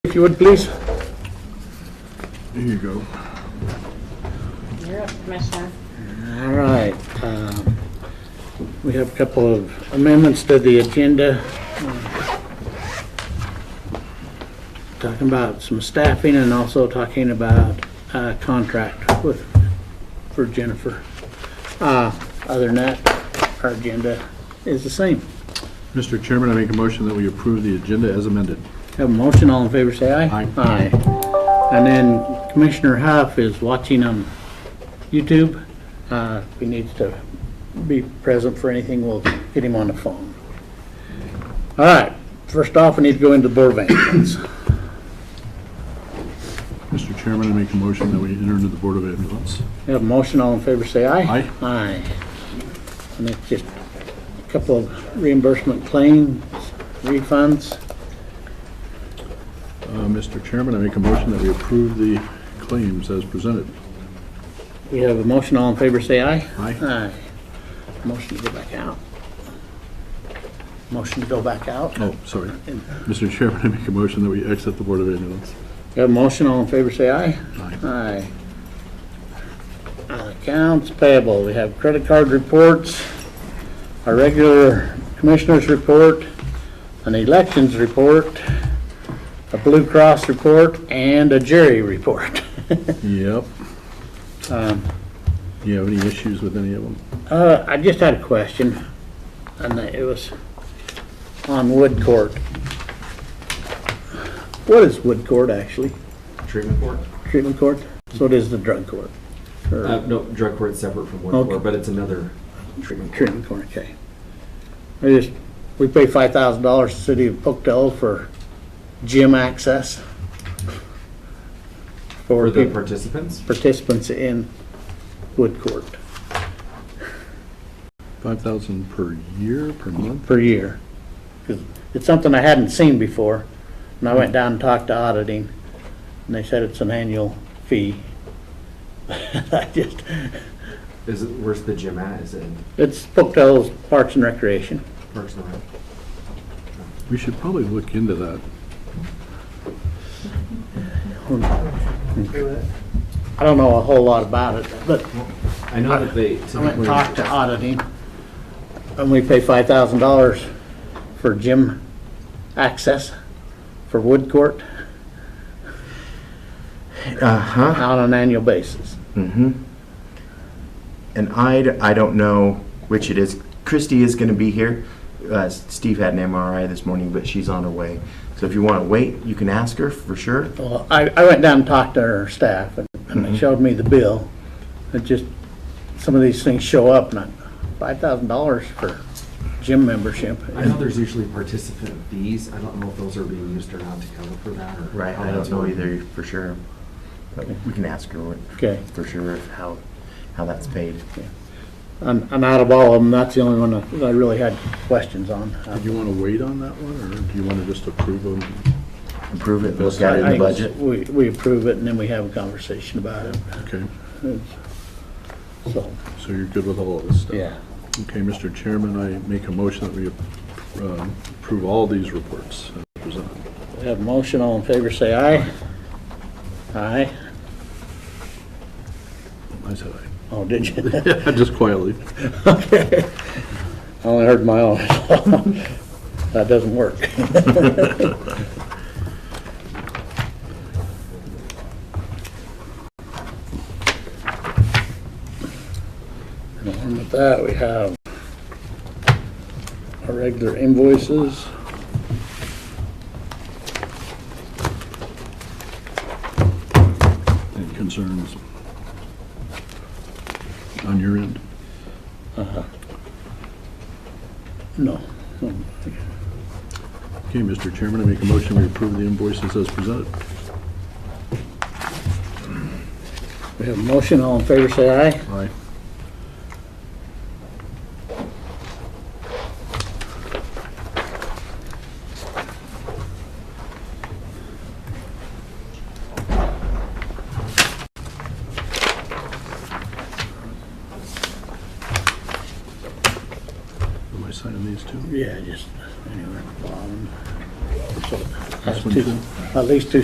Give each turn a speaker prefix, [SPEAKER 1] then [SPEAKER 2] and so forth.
[SPEAKER 1] if you would, please.
[SPEAKER 2] There you go.
[SPEAKER 3] You're up, Commissioner.
[SPEAKER 1] All right. um, We have a couple of amendments to the agenda. Talking about some staffing and also talking about uh, contract with, for Jennifer. Uh, Other than that, our agenda is the same.
[SPEAKER 2] Mr. Chairman, I make a motion that we approve the agenda as amended.
[SPEAKER 1] Have a motion, all in favor, say aye.
[SPEAKER 2] Aye.
[SPEAKER 1] Aye. And then Commissioner Huff is watching on YouTube. Uh, If he needs to be present for anything, we'll get him on the phone. All right, first off, we need to go into board vacancies.
[SPEAKER 2] Mr. Chairman, I make a motion that we enter into the Board of Ambulance.
[SPEAKER 1] Have a motion, all in favor, say aye.
[SPEAKER 2] Aye.
[SPEAKER 1] Aye. And it's just a couple of reimbursement claims, refunds.
[SPEAKER 2] Uh, Mr. Chairman, I make a motion that we approve the claims as presented.
[SPEAKER 1] We have a motion, all in favor, say aye.
[SPEAKER 2] Aye.
[SPEAKER 1] Aye. Motion to go back out. Motion to go back out.
[SPEAKER 2] Oh, sorry. Mr. Chairman, I make a motion that we exit the Board of Ambulance.
[SPEAKER 1] We have a motion, all in favor, say aye.
[SPEAKER 2] Aye.
[SPEAKER 1] Aye. Uh, Accounts payable, we have credit card reports, our regular commissioners report, an elections report, a Blue Cross report, and a jury report.
[SPEAKER 2] Yep.
[SPEAKER 1] Um,
[SPEAKER 2] Do you have any issues with any of them?
[SPEAKER 1] Uh, I just had a question, and it was on Wood Court. What is Wood Court, actually?
[SPEAKER 4] treatment court.
[SPEAKER 1] Treatment court? So it is the drug court? or-
[SPEAKER 4] Uh, no, drug court's separate from one
[SPEAKER 1] Okay.
[SPEAKER 4] court, but it's another treatment court.
[SPEAKER 1] Treatment court, okay. I just, we pay five thousand dollars to the city of Pocatello for gym access.
[SPEAKER 4] For
[SPEAKER 1] For
[SPEAKER 4] the
[SPEAKER 1] peop-
[SPEAKER 4] participants,
[SPEAKER 1] participants in Wood Court
[SPEAKER 2] Five thousand per year, per month?
[SPEAKER 1] per year. 'Cause It's something I hadn't seen before, and I went down and talked to auditing, and they said it's an annual fee. I just,
[SPEAKER 4] is it, where's the gym at? Is it in
[SPEAKER 1] it's Pocatello's Parks and Recreation.
[SPEAKER 4] Parks and Rec?
[SPEAKER 2] We should probably look into that.
[SPEAKER 1] I don't know a whole lot about it, but
[SPEAKER 4] I know that
[SPEAKER 1] I
[SPEAKER 4] they
[SPEAKER 1] went and
[SPEAKER 4] typically,
[SPEAKER 1] talked to auditing, and we pay five thousand dollars for gym access for Wood Court.
[SPEAKER 5] Uh-huh,
[SPEAKER 1] on an annual basis.
[SPEAKER 5] and I, d- I don't know which it is. Christy is gonna be here. Uh, Steve had an MRI this morning, but she's on her way. So if you wanna wait, you can ask her for sure.
[SPEAKER 1] Well, I, I went down and talked to her staff, and and they showed me the bill. It just, some of these things show up, and I, five thousand dollars for gym membership.
[SPEAKER 4] I know there's usually participant fees. I don't know if those are being used or not to cover for that or.
[SPEAKER 5] Right,
[SPEAKER 4] how
[SPEAKER 5] I
[SPEAKER 4] that's
[SPEAKER 5] don't know
[SPEAKER 4] going.
[SPEAKER 5] either for sure. But we can ask her what-
[SPEAKER 1] Okay.
[SPEAKER 5] for sure if how, how that's paid.
[SPEAKER 1] And, and out of all of them, that's the only one that I really had questions on.
[SPEAKER 2] Do you want to wait on that one, or do you want to just approve them?
[SPEAKER 5] Improve it, look at it in
[SPEAKER 1] I-
[SPEAKER 5] the budget.
[SPEAKER 1] We, we approve it, and then we have a conversation about it,
[SPEAKER 2] Okay,
[SPEAKER 1] so,
[SPEAKER 2] so you're good with all of this stuff?
[SPEAKER 1] yeah.
[SPEAKER 2] Okay, Mr. Chairman, I make a motion that we uh, approve all these reports as presented.
[SPEAKER 1] We Have a motion, all in favor, say aye. Aye.
[SPEAKER 2] I said aye.
[SPEAKER 1] Oh, did you?
[SPEAKER 2] Just quietly.
[SPEAKER 1] Okay. I only heard my own. That doesn't work. And along with that, we have our regular invoices.
[SPEAKER 2] Any concerns on your end?
[SPEAKER 1] No.
[SPEAKER 2] Okay, Mr. Chairman, I make a motion we approve the invoices as presented.
[SPEAKER 1] We have a motion. All in favor, say aye.
[SPEAKER 2] Aye. Am I signing these two?
[SPEAKER 1] Yeah, just anywhere at the bottom. So,
[SPEAKER 2] This
[SPEAKER 1] that's
[SPEAKER 2] one
[SPEAKER 1] two-
[SPEAKER 2] too?
[SPEAKER 1] At least two